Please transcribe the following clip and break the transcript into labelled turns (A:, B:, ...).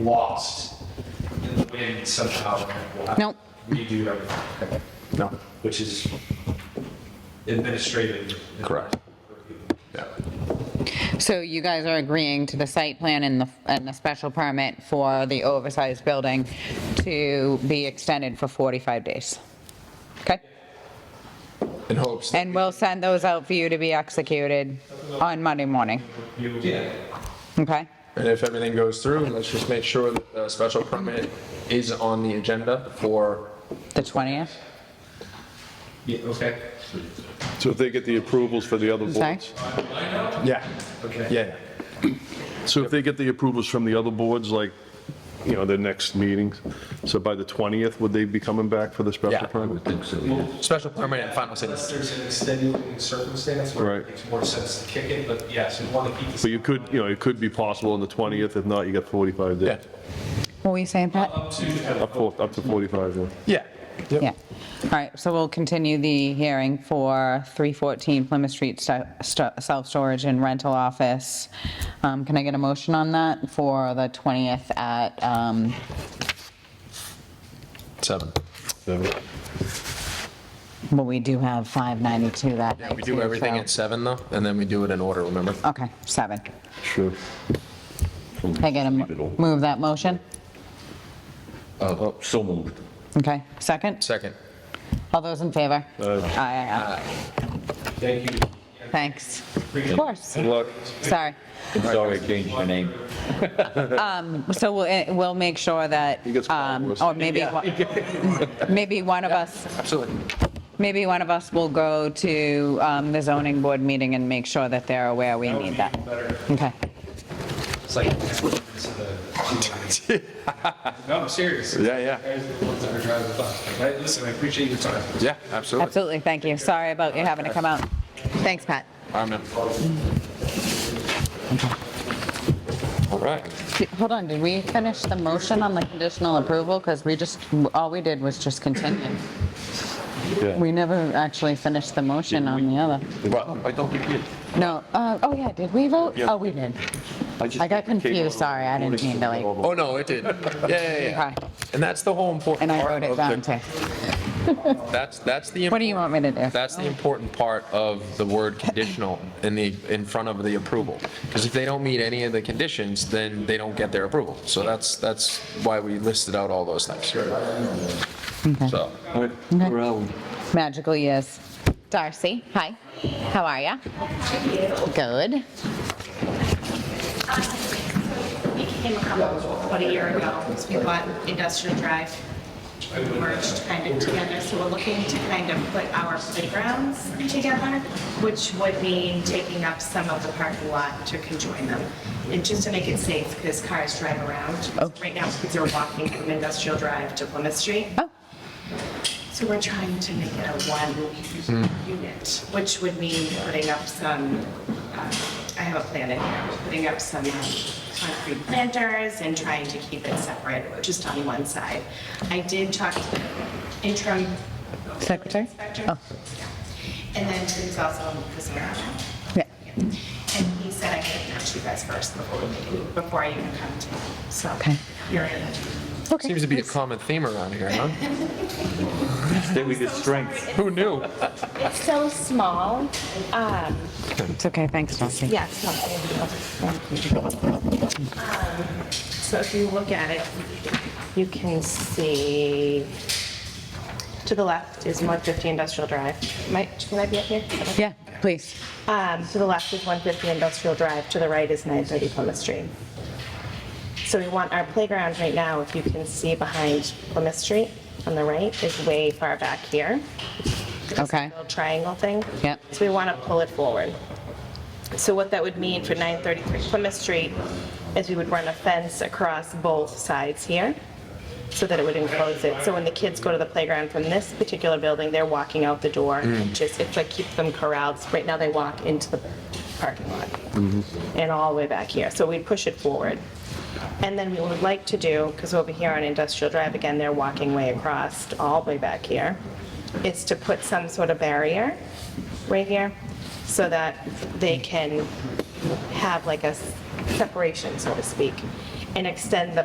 A: lost in the wind somehow. We'll have to
B: Nope.
A: Redo everything,
C: No,
A: which is administrative.
C: Correct. yeah.
B: So you guys are agreeing to the site plan and the, and the special permit for the oversized building to be extended for 45 days? Okay?
C: In hopes,
B: And we'll send those out for you to be executed on Monday morning,
A: You- Yeah,
B: okay?
C: and if everything goes through, let's just make sure that the special permit is on the agenda for,
B: The 20th?
A: yeah, okay.
D: So if they get the approvals for the other
B: I'm sorry?
D: boards?
C: yeah,
A: Okay.
C: yeah,
D: So if they get the approvals from the other boards, like, you know, their next meetings, so by the 20th, would they be coming back for the
C: Yeah.
D: special permit?
C: special permit and final say.
A: Unless there's an extenuating circumstance where it
D: Right.
A: makes more sense to kick it, but yes, we want to keep this.
D: But you could, you know, it could be possible on the 20th, if not, you got 45
C: yeah,
D: days.
B: What were you saying, Pat?
A: Up to.
D: Up for- up to 45, yeah.
C: yeah. Yep.
B: Yeah. All right, so we'll continue the hearing for 314 Plymouth Street sto- sto- self-storage and rental office. Um, Can I get a motion on that for the 20th at um,
C: Seven.
D: So-
B: Well, we do have 592 that night.
C: We do
B: too,
C: everything
B: so-
C: at seven though, and then we do it in order, remember?
B: Okay, seven.
D: Sure.
B: Can I get a, mo- move that motion?
E: Uh, So moved.
B: Okay, second?
C: Second.
B: All those in favor? Aye, aye,
A: Thank you.
B: aye. Thanks. Of course,
D: Good luck.
B: sorry.
E: I'm sorry I changed your name.
B: So we'll, eh, we'll make sure that,
D: He gets called
B: um,
D: worse.
B: or maybe, one- maybe one of us,
C: Absolutely.
B: maybe one of us will go to um, the zoning board meeting and make sure that they're aware we
A: That would
B: need
A: be
B: that.
A: better.
B: Okay,
A: It's like. No, I'm serious.
C: Yeah, yeah.
A: Guys are the ones that are driving the bus. Like, I- Listen, I appreciate your time.
C: Yeah, absolutely.
B: absolutely, thank you. Sorry about you having to come out. Thanks, Pat.
C: All right, man. All right.
B: Did- Hold on, did we finish the motion on the conditional approval? Because we just, all we did was just continue.
D: Yeah.
B: We never actually finished the motion on the other.
E: Well, I don't think you did.
B: No, uh, oh yeah, did we vote? Oh, we did.
E: just-
B: I got confused, sorry, I didn't mean to like,
C: Oh, no, it did. Yeah, yeah, yeah.
B: Okay.
C: And that's the whole important
B: and I
C: part
B: wrote it
C: of the-
B: down too.
C: That's, that's the.
B: What do you want me to do?
C: That's the important part of the word conditional in the, in front of the approval. Because if they don't meet any of the conditions, then they don't get their approval. So that's, that's why we listed out all those things. So,
E: Where are we?
B: Magical yes. Darcy, hi, how are ya? Good.
F: We Um, came a couple, about a year ago, because we bought Industrial Drive, merged kind of together, so we're looking to kind of put our playgrounds together, which would mean taking up some of the parking lot to conjoin them, and just to make it safe, because cars drive around. Right now, kids are walking from Industrial Drive to Plymouth Street.
B: Oh.
F: So we're trying to make it a one unit, which would mean putting up some, uh, I have a plan in here, putting up some um, concrete planters and trying to keep it separate, just on one side. I did talk to the interim
B: Secretary?
F: inspector.
B: Oh.
F: Yeah. And then who's also on the zoning.
B: Yeah.
F: And he said I could match you guys first before we meet, before I even come to, so.
B: Okay.
F: You're in.
C: seems to be a common theme around here, huh?
E: There we get strength.
C: Who knew?
F: It's so small.
B: It's okay, thanks, Darcy.
F: Yes. So if you look at it, you can see, to the left is 150 Industrial Drive. Might, can I be up here?
B: Yeah, please.
F: Um, To the left is 150 Industrial Drive, to the right is 930 Plymouth Street. So we want our playground right now, if you can see behind Plymouth Street on the right, is way far back here.
B: Okay,
F: Little triangle thing.
B: Yep.
F: So we want to pull it forward. So what that would mean for 933 Plymouth Street is we would run a fence across both sides here so that it would enclose it. So when the kids go to the playground from this particular building, they're walking out the door. Just, it's like keep them corralled. Right now they walk into the parking lot and all the way back here. So we'd push it forward. And then we would like to do, because over here on Industrial Drive, again, they're walking way across, all the way back here, is to put some sort of barrier right here so that they can have like a s- separation, so to speak, and extend the